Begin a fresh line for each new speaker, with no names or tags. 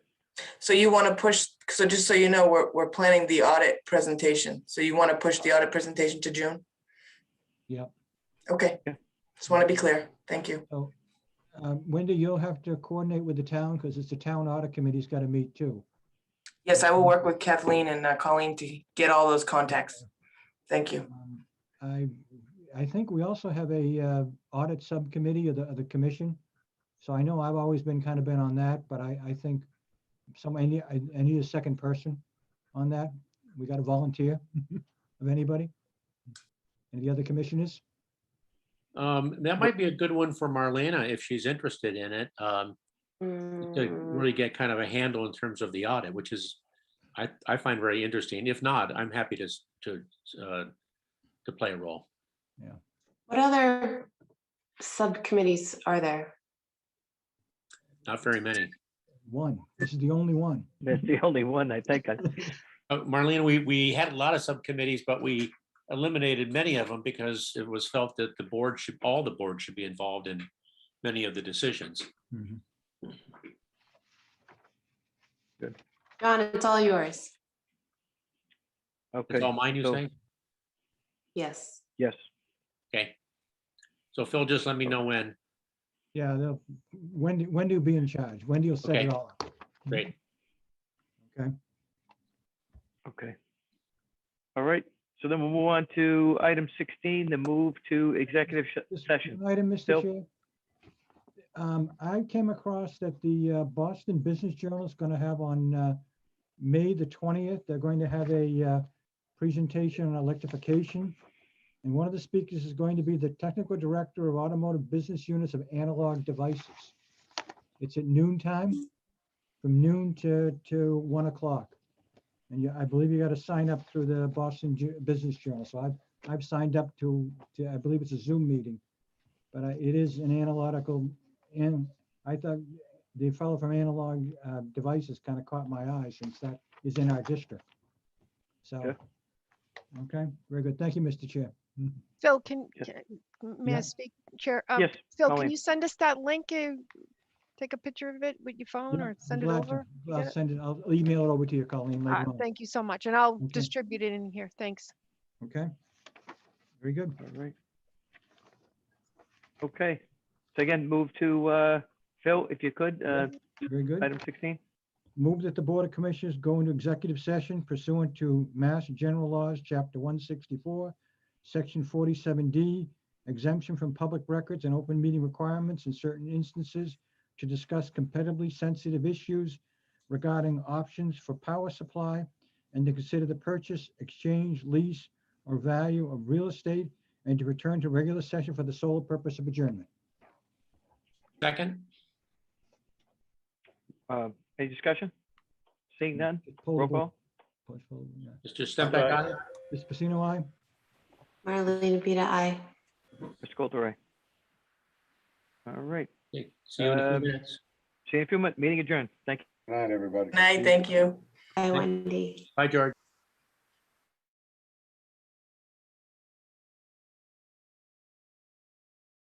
So you want to push, so just so you know, we're, we're planning the audit presentation. So you want to push the audit presentation to June?
Yep.
Okay.
Yeah.
Just want to be clear. Thank you.
Um, Wendy, you'll have to coordinate with the town because it's the town audit committee's got to meet too.
Yes, I will work with Kathleen and uh, Colleen to get all those contacts. Thank you.
Um, I, I think we also have a uh, audit subcommittee of the, of the commission. So I know I've always been kind of been on that, but I, I think some, I need, I I need a second person on that. We got a volunteer of anybody? Any other commissioners?
Um, that might be a good one for Marlena if she's interested in it, um,
Mm.
to
Mm.
really get kind of a handle in terms of the audit, which is, I, I find very interesting. If not, I'm happy to, s- to, uh, to play a role.
What other subcommittees are there?
Not very many.
One. This is the only one.
That's the only one, I think. I-
Uh, Marlene, we, we had a lot of subcommittees, but we eliminated many of them because it was felt that the board should, all the board should be involved in many of the decisions.
John, it's all yours.
Okay,
That's all mine, you
so-
say?
Yes.
yes,
Okay. So Phil, just let me know when.
Mm-hmm.
Yeah, they'll, Wendy, Wendy will be in charge. Wendy will set
Okay.
it all up.
Great.
okay. All right, so then we'll move on to item 16, the move to executive sh-
Just
session.
one Item,
Bill?
Mr. Chair. Um, I came across that the uh, Boston Business Journal is going to have on uh, May the 20th, they're going to have a uh, presentation on electrification. And one of the speakers is going to be the Technical Director of Automotive Business Units of Analog Devices. It's at noon time, from noon to, to 1 o'clock. And you, I believe you got to sign up through the Boston Ju- Business Journal. So I've, I've signed up to, to, I believe it's a Zoom meeting. But I- it is an analogical, and I thought the fellow from Analog uh, Devices kind of caught my eye since that is in our district. So,
Okay.
okay, very good. Thank you, Mr. Chair.
Phil, can,
Yes.
can- may
Yeah.
I speak, Chair? Um,
Yes,
Phil,
Colleen.
can you send us that link? uh, Take a picture of it with your phone
Yeah,
or
I'm
send it
glad to-
over? You
I'll
get it?
send it, I'll email it over to you, Colleen,
Ah,
later on,
Thank you so much, and I'll
Okay.
distribute it in here. Thanks.
okay? Very good.
all right. Okay, so again, move to, uh, Phil, if you could, uh,
Very good.
item 16.
Move that the Board of Commissioners go into executive session pursuant to Mass General Laws, Chapter 164, Section 47D, exemption from public records and open meeting requirements in certain instances to discuss competitively sensitive issues regarding options for power supply and to consider the purchase, exchange, lease, or value of real estate, and to return to regular session for the sole purpose of adjournment.
Second?
Uh, Any discussion? Seeing none, roll call?
Mr. Stempak, aye?
Mr. Pacino, aye?
Marlene Vita, I.
Mr. Coulter, aye. All right,
Okay, See you in a few
Um,
minutes.
see you in a few minutes, meeting adjourned, thank you.
Good night, everybody.
Night, thank you.
I, Wendy.
Bye, George.